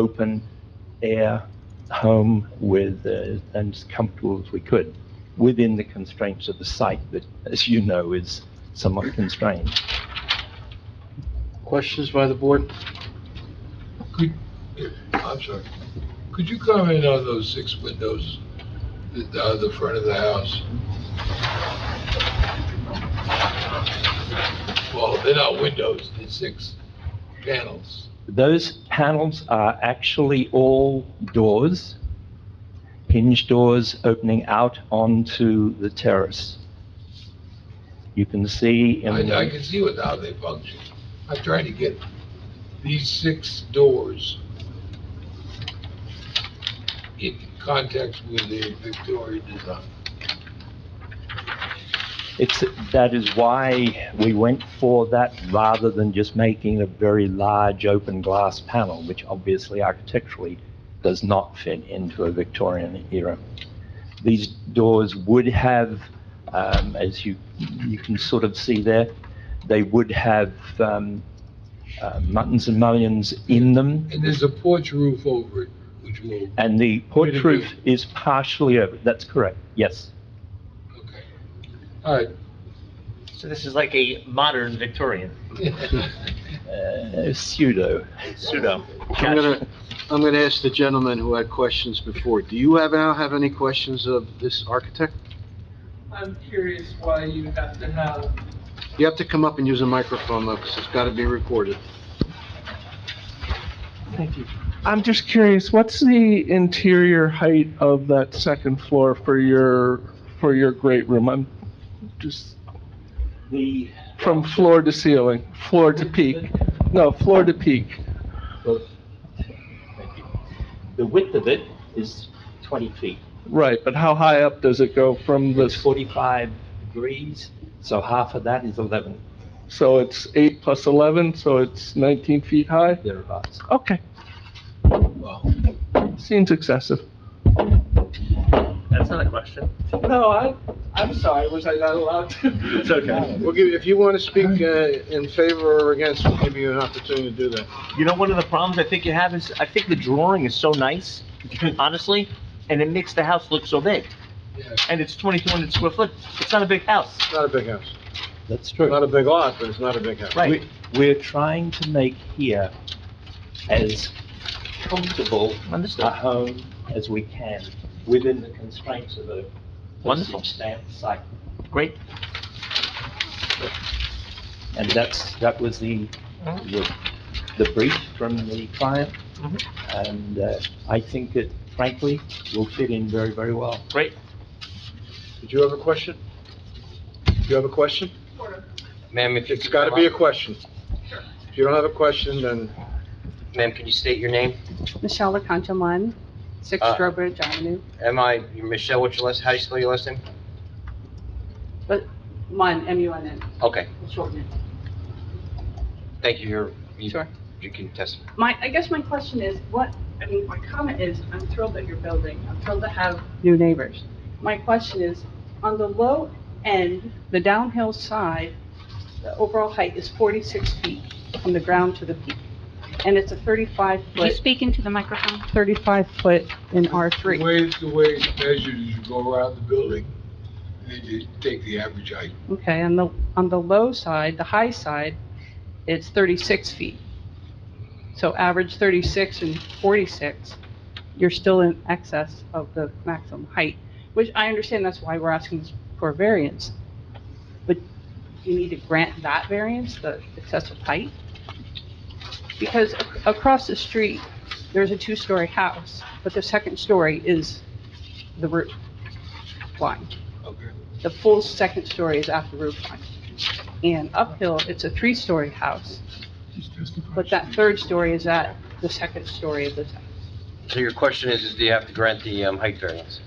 open air home with, uh, and as comfortable as we could, within the constraints of the site that, as you know, is somewhat constrained. Questions by the board? Could, I'm sorry, could you comment on those six windows that are the front of the house? Well, they're not windows, they're six panels. Those panels are actually all doors, hinge doors opening out onto the terrace. You can see in I, I the, can see what, how they function. I'm trying to get these six doors in context with the Victorian design. it's, that is why we went for that rather than just making a very large open glass panel, which obviously architecturally does not fit into a Victorian era. These doors would have, um, as you, you can sort of see there, they would have, um, uh, muttons and mullions in them. And there's a porch roof over it, which will, And the porch Way to roof go. is partially over, that's correct, yes. okay. All right, So this is like a modern Victorian Uh, pseudo. pseudo. I'm gonna, I'm gonna ask the gentleman who had questions before. Do you have, now have any questions of this architect? I'm curious why you have to have, You have to come up and use a microphone, though, because it's gotta be recorded. I'm just curious, what's the interior height of that second floor for your, for your great room? I'm just, The, from floor to ceiling, floor to peak, no, floor to peak. well, thank you. the width of it is 20 feet. Right, but how high up does it go from It's this, 45 degrees, so half of that is 11 so it's eight plus 11, so it's 19 feet high? thereabouts. Okay, well. seems excessive. That's not a question. No, I, I'm sorry, was I not allowed to? It's okay. We'll give, if you want to speak uh, in favor or against, we'll give you an opportunity to do that. You know, one of the problems I think you have is, I think the drawing is so nice, honestly, and it makes the house look so big. Yeah. And it's 2,200 square foot. It's not a big house. It's not a big house. That's true. Not a big lot, but it's not a big house. Right. We- We're trying to make here as comfortable a Understood. home as we can within the constraints of a Wonderful. postage stamp site. Great. And that's, that was the, the the brief from the client. Mhm. And uh, I think it frankly will fit in very, very well. Great. Did you have a question? Do you have a question? Ma'am, if you It's could got to come be a up. question. If you don't have a question, then Ma'am, can you state your name? Michelle LaConchaline, 6 Uh, Strobridge Avenue. Am I, Michelle, what's your last, how do you spell your last name? Munn, M-U-N-N, Okay, we'll shorten it. thank you, you're, you Sure. you can test. My, I guess my question is, what, I mean, my comment is, I'm thrilled that you're building, I'm thrilled to have new neighbors. My question is, on the low end, the downhill side, the overall height is 46 feet from the ground to the peak, and it's a 35-foot. speak into the microphone? 35-foot in The R3. way, the way it's measured is you go around the building, and then you take the average height. Okay, on the, on the low side, the high side, it's 36 feet. So average 36 and 46, you're still in excess of the maximum height, which I understand that's why we're asking for variance. But you need to grant that variance, the excessive height? Because ac- across the street, there's a two-story house, but the second story is the roof line. Okay. The full second story is at the roof line. And uphill, it's a three-story house, but that third story is at the second story of this house. So your question is, is do you have to grant the um, height variance?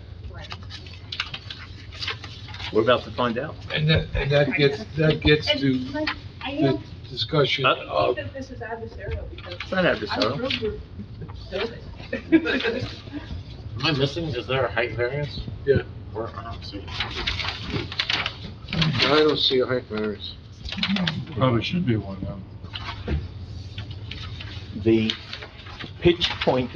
We're about to find out. And that, and that gets, that gets to I the discussion Uh, of, that this is adversarial because It's not adversarial. through Am I missing, is there a height variance? Yeah. Or, I don't see. it. I don't see a height variance. probably should be one of them. The pitch point